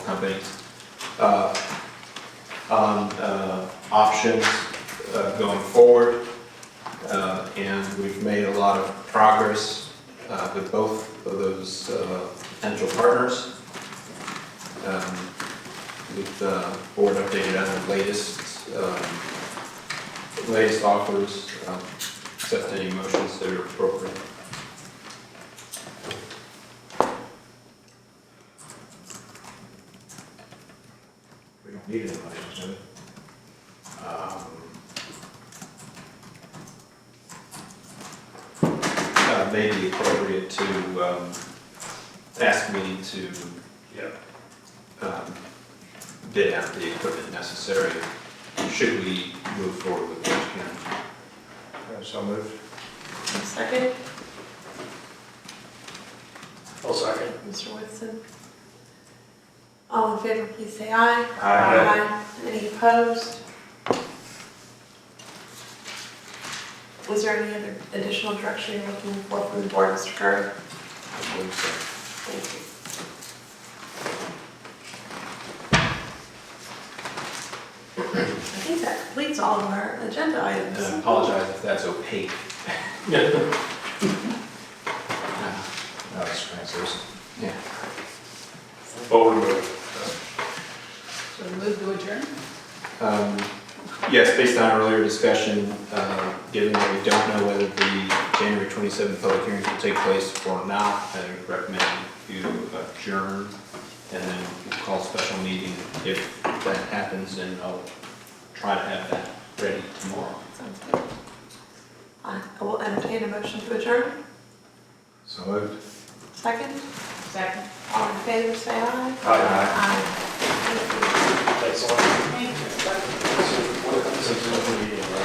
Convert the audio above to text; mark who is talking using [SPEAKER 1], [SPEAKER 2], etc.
[SPEAKER 1] things, uh, on, uh, options, uh, going forward. Uh, and we've made a lot of progress, uh, with both of those, uh, potential partners. Um, with the board updated on the latest, um, latest offers, um, accept any motions that are appropriate.
[SPEAKER 2] We don't need any motions, do we?
[SPEAKER 1] Um, uh, May be appropriate to um, ask me to
[SPEAKER 2] Yeah.
[SPEAKER 1] um, bid out the equipment necessary should we move forward with Orange County.
[SPEAKER 2] Uh, So moved.
[SPEAKER 3] Second,
[SPEAKER 4] I'll second.
[SPEAKER 3] Mr. Woodson. All in favor, please say aye.
[SPEAKER 1] Uh,
[SPEAKER 3] Any opposed? Was there any other additional direction you're looking for from the board, Mr. Curry?
[SPEAKER 1] I believe so.
[SPEAKER 3] Thank you. I think that completes all of our agenda
[SPEAKER 1] And I
[SPEAKER 3] items.
[SPEAKER 1] apologize if that's opaque.
[SPEAKER 4] Yeah.
[SPEAKER 1] Uh,
[SPEAKER 2] No, it's translucent.
[SPEAKER 1] Yeah.
[SPEAKER 4] Forward move.
[SPEAKER 5] So move to adjourn?
[SPEAKER 1] Um, Yes, based on earlier discussion, uh, given that we don't know whether the January 27th public hearings will take place or not, I recommend you adjourn and then call a special meeting if that happens, and I'll try to have that ready tomorrow.
[SPEAKER 3] Sounds good. I I will entertain a motion to adjourn.
[SPEAKER 2] So moved.
[SPEAKER 3] Second,
[SPEAKER 5] Second.
[SPEAKER 3] all in favor, say aye. Aye. Thank you.
[SPEAKER 4] Thanks a lot.
[SPEAKER 5] Thank you.
[SPEAKER 4] Six, seven, eight.